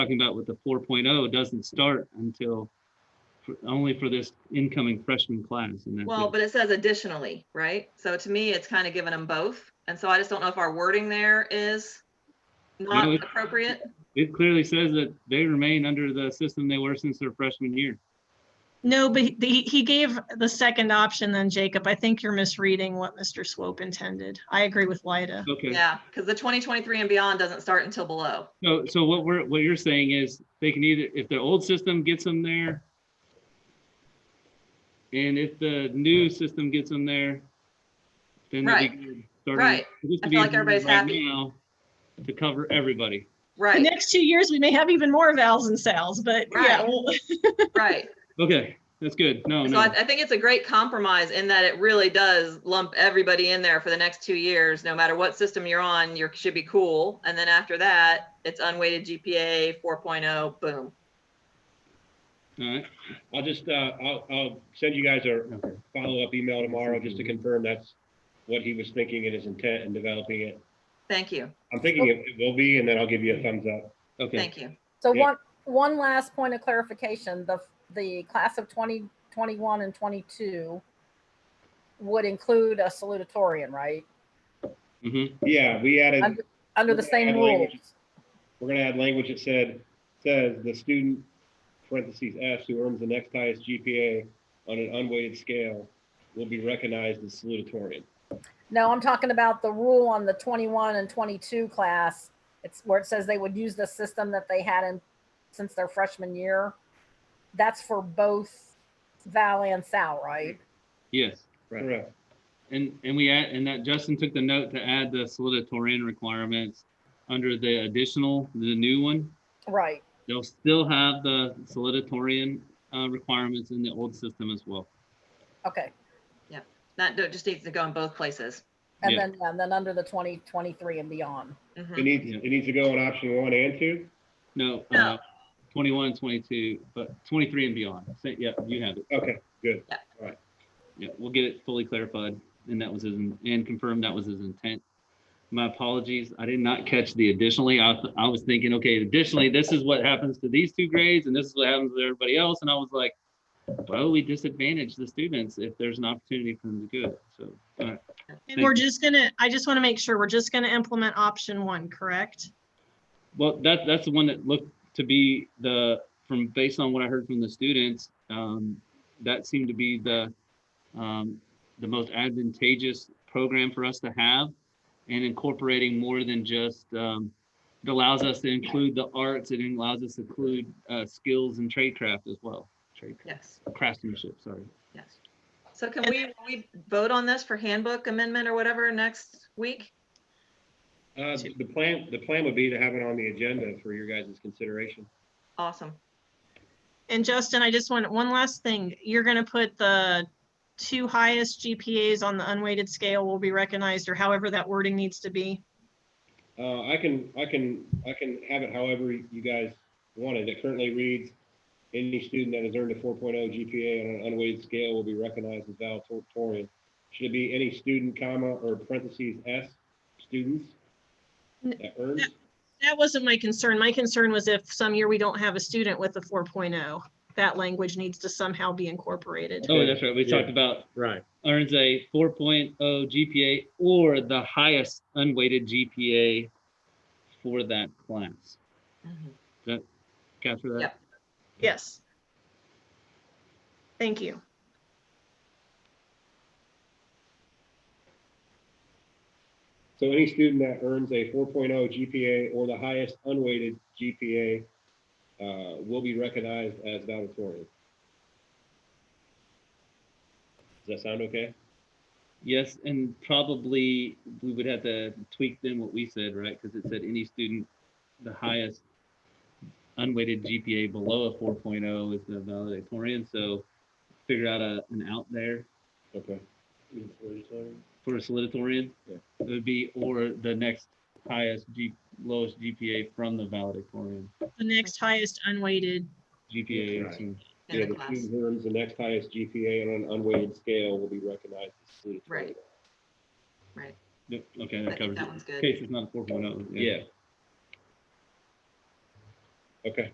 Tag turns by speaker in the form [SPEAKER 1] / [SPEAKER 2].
[SPEAKER 1] talking about with the 4.0 doesn't start until, for- only for this incoming freshman class. and that's
[SPEAKER 2] Well,
[SPEAKER 1] it.
[SPEAKER 2] but it says additionally, right? So to me, it's kind of giving them both. And so I just don't know if our wording there is not
[SPEAKER 1] No, it-
[SPEAKER 2] appropriate.
[SPEAKER 1] It clearly says that they remain under the system they were since their freshman year.
[SPEAKER 3] No, but he- he, he gave the second option then, Jacob. I think you're misreading what Mr. Swope intended. I agree with Lyda.
[SPEAKER 1] Okay,
[SPEAKER 2] Yeah, because the 2023 and beyond doesn't start until below.
[SPEAKER 1] so, so what we're, what you're saying is they can either, if the old system gets them there, and if the new system gets them there, then they'll be
[SPEAKER 2] Right.
[SPEAKER 1] good starting-
[SPEAKER 2] Right.
[SPEAKER 1] it used to
[SPEAKER 2] I
[SPEAKER 1] be
[SPEAKER 2] feel like
[SPEAKER 1] included
[SPEAKER 2] everybody's
[SPEAKER 1] right
[SPEAKER 2] happy.
[SPEAKER 1] now To cover everybody.
[SPEAKER 3] The
[SPEAKER 2] Right,
[SPEAKER 3] next two years, we may have even more vowels and sales, but yeah,
[SPEAKER 2] Right.
[SPEAKER 3] well,
[SPEAKER 2] right.
[SPEAKER 1] Okay, that's good. Oh, No,
[SPEAKER 2] So I,
[SPEAKER 1] no,
[SPEAKER 2] I think it's a great compromise in that it really does lump everybody in there for the next two years. No matter what system you're on, you should be cool. And then after that, it's unweighted GPA 4.0, oh, boom.
[SPEAKER 1] all right.
[SPEAKER 4] I'll just, uh, I'll, I'll send you guys a
[SPEAKER 1] Okay.
[SPEAKER 4] follow-up email tomorrow just to confirm that's what he was thinking and his intent in developing it.
[SPEAKER 2] Thank you,
[SPEAKER 4] I'm thinking it it will be, and then I'll give you a thumbs up.
[SPEAKER 1] Okay,
[SPEAKER 2] thank you.
[SPEAKER 5] So
[SPEAKER 4] Yeah.
[SPEAKER 5] one, one last point of clarification, the, the class of 2021 and 22 would include a salutatorian, right?
[SPEAKER 1] mhm,
[SPEAKER 4] Yeah, we added,
[SPEAKER 5] I'm- Under the
[SPEAKER 4] Yeah,
[SPEAKER 5] same
[SPEAKER 4] I'd
[SPEAKER 5] rules.
[SPEAKER 4] like- we're gonna add language that said, says the student, parentheses S, who earns the next highest GPA on an unweighted scale will be recognized as salutatorian.
[SPEAKER 5] No, I'm talking about the rule on the 21 and 22 class. It's where it says they would use the system that they had in, since their freshman year. That's for both Val and Sal, right?
[SPEAKER 1] yes.
[SPEAKER 4] Right.
[SPEAKER 1] And, and we add, and that Justin took the note to add the salutatorian requirements under the additional, the new one.
[SPEAKER 4] Mm-hmm.
[SPEAKER 5] Right.
[SPEAKER 1] They'll still have the salutatorian uh, requirements in the old system as well.
[SPEAKER 5] Okay.
[SPEAKER 2] That do- just needs to go in both places.
[SPEAKER 5] And
[SPEAKER 1] Yeah.
[SPEAKER 5] then, and then under the 2023 and beyond.
[SPEAKER 2] Mhm.
[SPEAKER 4] It needs, it needs to go on option one and two?
[SPEAKER 1] No,
[SPEAKER 2] No.
[SPEAKER 1] uh, 21, 22, but 23 and beyond. Say- Yeah, you have it.
[SPEAKER 4] Okay, good.
[SPEAKER 1] Yeah, we'll get it fully clarified. And that was his, in- and confirmed that was his intent. My apologies. I did not catch the additionally. I, th- I was thinking, okay, additionally, this is what happens to these two grades and this is what happens to everybody else. And I was like, well, we disadvantage the students if there's an opportunity for them to do it. So, uh, all right.
[SPEAKER 3] and we're just gonna, I just want to make sure, we're just gonna implement option one, correct?
[SPEAKER 1] Well, that, that's the one that looked to be the, from, based on what I heard from the students, um, that seemed to be the, um, the most advantageous program for us to have and incorporating more than just, um, it allows us to include the arts, it allows us to include, uh, skills and trade craft as well. Trade,
[SPEAKER 2] Yes,
[SPEAKER 1] craftsmanship, sorry.
[SPEAKER 2] yes. So can we, we vote on this for handbook amendment or whatever next week?
[SPEAKER 4] Uh, the plan, the plan would be to have it on the agenda for your guys' consideration.
[SPEAKER 2] Awesome.
[SPEAKER 3] And Justin, I just want, one last thing. You're gonna put the two highest GPAs on the unweighted scale will be recognized, or however that wording needs to be.
[SPEAKER 4] Uh, I can, I can, I can have it however you guys want it. It currently reads, any student that has earned a 4.0 GPA on an unweighted scale will be recognized as valedictorian. Should it be any student, comma, or parentheses S, students?
[SPEAKER 3] N-
[SPEAKER 4] That earns,
[SPEAKER 3] That wasn't my concern. My concern was if some year we don't have a student with a 4.0, that language needs to somehow be incorporated.
[SPEAKER 1] Oh, that's right. We
[SPEAKER 4] Yeah.
[SPEAKER 1] talked about
[SPEAKER 6] Right.
[SPEAKER 1] earns a 4.0 GPA or the highest unweighted GPA for that class.
[SPEAKER 2] Mhm.
[SPEAKER 1] Capture that?
[SPEAKER 2] Yep.
[SPEAKER 3] Yes. Thank you.
[SPEAKER 4] so any student that earns a 4.0 GPA or the highest unweighted GPA uh, will be recognized as valedictorian. Does that sound okay?
[SPEAKER 1] Yes, and probably we would have to tweak then what we said, right? Because it said any student, the highest unweighted GPA below a 4.0 is the valedictorian. So figure out a, an out there
[SPEAKER 4] Okay.
[SPEAKER 1] for a salutatorian.
[SPEAKER 4] Yeah.
[SPEAKER 1] It would be, or the next highest, G, lowest GPA from the valedictorian.
[SPEAKER 3] The next highest unweighted,
[SPEAKER 1] GPA.
[SPEAKER 4] Right.
[SPEAKER 1] so-
[SPEAKER 4] Yeah,
[SPEAKER 2] In
[SPEAKER 4] the
[SPEAKER 2] the class.
[SPEAKER 4] student who earns the next highest GPA on an unweighted scale will be recognized as student.
[SPEAKER 2] Right.
[SPEAKER 1] Yep, okay,
[SPEAKER 2] I
[SPEAKER 1] that
[SPEAKER 2] think
[SPEAKER 1] covers
[SPEAKER 2] that
[SPEAKER 1] it.
[SPEAKER 2] one's good.
[SPEAKER 1] Case is not four point oh.
[SPEAKER 4] Yeah, Okay.